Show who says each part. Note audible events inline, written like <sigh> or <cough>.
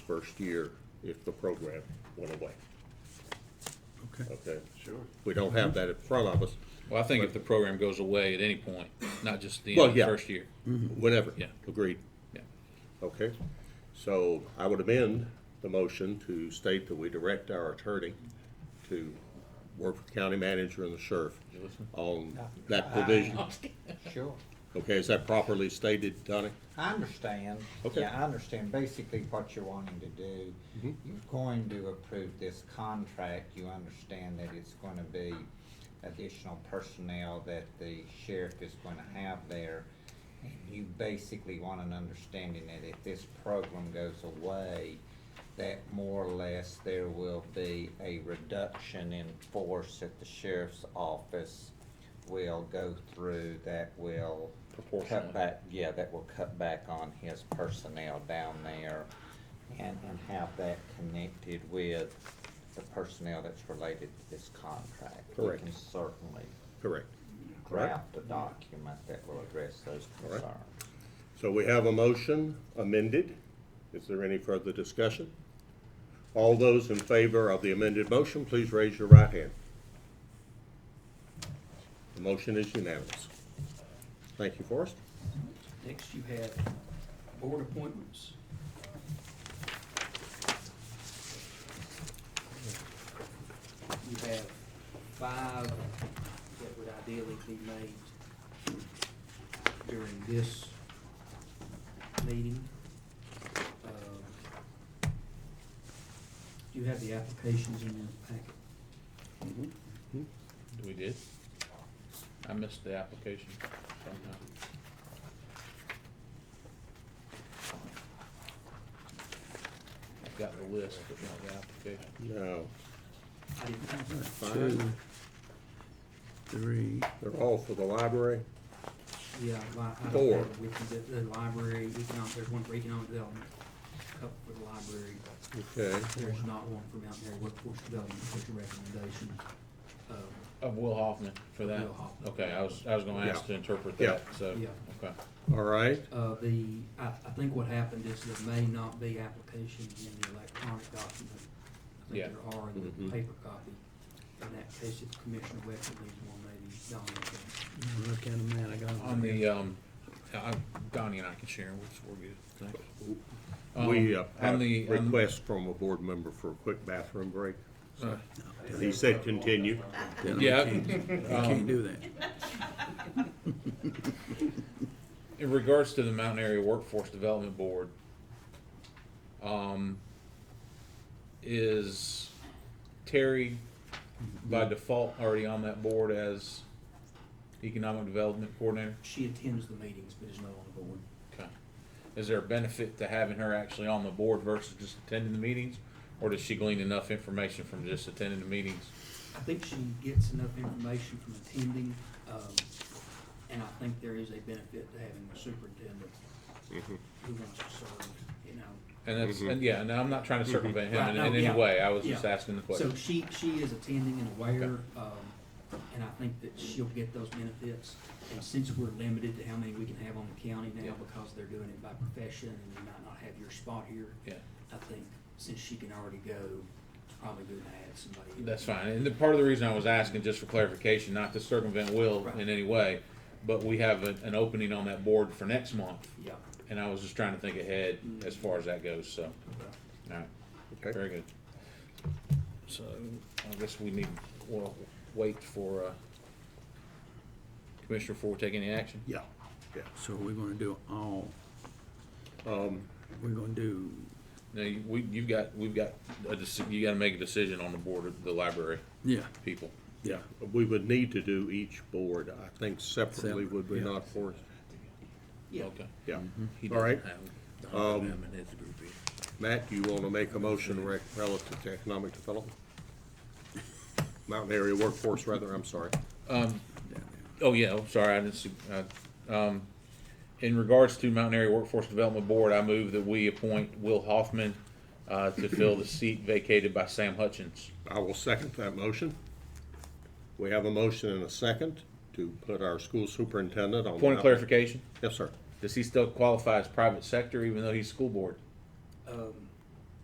Speaker 1: first year if the program went away,
Speaker 2: Okay.
Speaker 1: okay?
Speaker 3: Sure.
Speaker 1: We don't have that in front of us,
Speaker 4: Well, I think if the program goes away at any point, not just the
Speaker 1: Well,
Speaker 4: end of the
Speaker 1: yeah.
Speaker 4: first year.
Speaker 1: whatever.
Speaker 4: Yeah.
Speaker 1: Agreed,
Speaker 4: Yeah.
Speaker 1: okay? So I would amend the motion to state that we direct our attorney to work with county manager and the sheriff on that provision.
Speaker 5: Sure,
Speaker 1: Okay, is that properly stated, Donnie?
Speaker 5: I understand.
Speaker 1: Okay.
Speaker 5: Yeah, I understand basically what you're wanting to do. You're going to approve this contract, you understand that it's gonna be additional personnel that the sheriff is gonna have there. And you basically want an understanding that if this program goes away, that more or less there will be a reduction in force at the sheriff's office will go through that will
Speaker 4: Proportionally.
Speaker 5: cut back, yeah, that will cut back on his personnel down there and, and have that connected with the personnel that's related to this contract.
Speaker 1: Correct.
Speaker 5: We can certainly
Speaker 1: Correct. Correct.
Speaker 5: draft a document that will address those
Speaker 1: Correct.
Speaker 5: concerns.
Speaker 1: So we have a motion amended. Is there any further discussion? All those in favor of the amended motion, please raise your right hand. The motion is unanimous. Thank you, Forrest.
Speaker 6: Next, you have board appointments. You have five that would ideally be made during this meeting. Um, You have the applications in the packet.
Speaker 4: We did? I missed the application somehow. I've got the list, but not the application.
Speaker 1: No,
Speaker 6: I didn't,
Speaker 1: Fine.
Speaker 2: Two, three,
Speaker 1: they're all for the library.
Speaker 6: yeah, li- I don't
Speaker 1: Four.
Speaker 6: have it with you, the, the library, economic, there's one for economic development, couple for the library.
Speaker 1: Okay,
Speaker 6: There's not one for Mount Airy Workforce Development, which a recommendation. Uh,
Speaker 4: Of Will Hoffman for that?
Speaker 6: Will Hoffman.
Speaker 4: Okay, I was, I was gonna ask
Speaker 1: Yeah.
Speaker 4: to interpret
Speaker 1: Yeah.
Speaker 4: that, so,
Speaker 6: Yeah.
Speaker 4: okay.
Speaker 1: all right.
Speaker 6: Uh, the, I, I think what happened is there may not be applications in the electronic document. I
Speaker 4: Yeah.
Speaker 6: think there are in
Speaker 1: Mhm.
Speaker 6: the paper copy. In that case, it's Commissioner Wexler needs one, maybe Dominic. can-
Speaker 2: Now look at them, man, I got 'em
Speaker 4: On
Speaker 2: right
Speaker 4: the,
Speaker 2: here.
Speaker 4: um, I- Donnie and I can share, we're, we're good, thanks.
Speaker 1: We uh,
Speaker 4: Um, on
Speaker 1: had
Speaker 4: the-
Speaker 1: a
Speaker 4: on-
Speaker 1: request from a board member for a quick bathroom break.
Speaker 4: Uh,
Speaker 1: He said continue.
Speaker 2: Then I
Speaker 4: Yeah.
Speaker 2: can't-
Speaker 4: <laughs>
Speaker 2: I
Speaker 4: um,
Speaker 2: can't do that.
Speaker 4: <laughs> in regards to the Mountain Area Workforce Development Board, um, is Terry by default already on that board as Economic Development Coordinator?
Speaker 6: She attends the meetings, but is not on the board.
Speaker 4: Okay. Is there a benefit to having her actually on the board versus just attending the meetings? Or does she glean enough information from just attending the meetings?
Speaker 6: I think she gets enough information from attending, um, and I think there is a benefit to having a superintendent who wants to serve, you know.
Speaker 4: And that's, and yeah, and I'm not trying to
Speaker 6: Mm-hmm.
Speaker 4: circumvent him in, in any
Speaker 6: Yeah.
Speaker 4: way, I was just
Speaker 6: Yeah.
Speaker 4: asking the
Speaker 6: So
Speaker 4: question.
Speaker 6: she, she is attending and aware,
Speaker 4: Okay.
Speaker 6: um, and I think that she'll get those benefits. And since we're limited to how many we can have on the county
Speaker 4: Yeah.
Speaker 6: now because they're doing it by profession and you might not have your spot here.
Speaker 4: Yeah.
Speaker 6: I think since she can already go, it's probably good to have somebody. else.
Speaker 4: That's fine, and the, part of the reason I was asking, just for clarification, not to circumvent Will in
Speaker 6: Right.
Speaker 4: any way, but we have an, an opening on that board for next month,
Speaker 6: Yeah.
Speaker 4: and I was just trying to think ahead
Speaker 6: Mm.
Speaker 4: as far as that goes, so,
Speaker 6: Okay.
Speaker 4: alright,
Speaker 1: Okay.
Speaker 4: very good. So, I guess we need, we'll wait for, uh, Commissioner Ford to take any action?
Speaker 1: Yeah, yeah.
Speaker 2: So we're gonna do all,
Speaker 1: Um,
Speaker 2: we're gonna do,
Speaker 4: Now, you, we, you've got, we've got, a deci- you gotta make a decision on the board of the library
Speaker 2: yeah,
Speaker 4: people.
Speaker 2: yeah,
Speaker 1: We would need to do each board, I think separately, would we
Speaker 2: Separate, yeah.
Speaker 1: not, Forrest?
Speaker 6: Yeah.
Speaker 4: Okay.
Speaker 1: Yeah.
Speaker 4: He
Speaker 1: All right.
Speaker 4: doesn't have-
Speaker 1: Um,
Speaker 4: him in his group either.
Speaker 1: Matt, you want to make a motion rec- relative to economic development? Mountain area workforce, rather, I'm sorry.
Speaker 4: Oh, yeah, I'm sorry, I didn't see, uh, um, in regards to Mountain Area Workforce Development Board, I move that we appoint Will Hoffman, uh, to fill the seat vacated by Sam Hutchins.
Speaker 1: I will second that motion. We have a motion and a second to put our school superintendent on. the
Speaker 4: Point of
Speaker 1: Mountain-
Speaker 4: clarification,
Speaker 1: Yes, sir.
Speaker 4: does he still qualify as private sector even though he's school board?
Speaker 6: Um,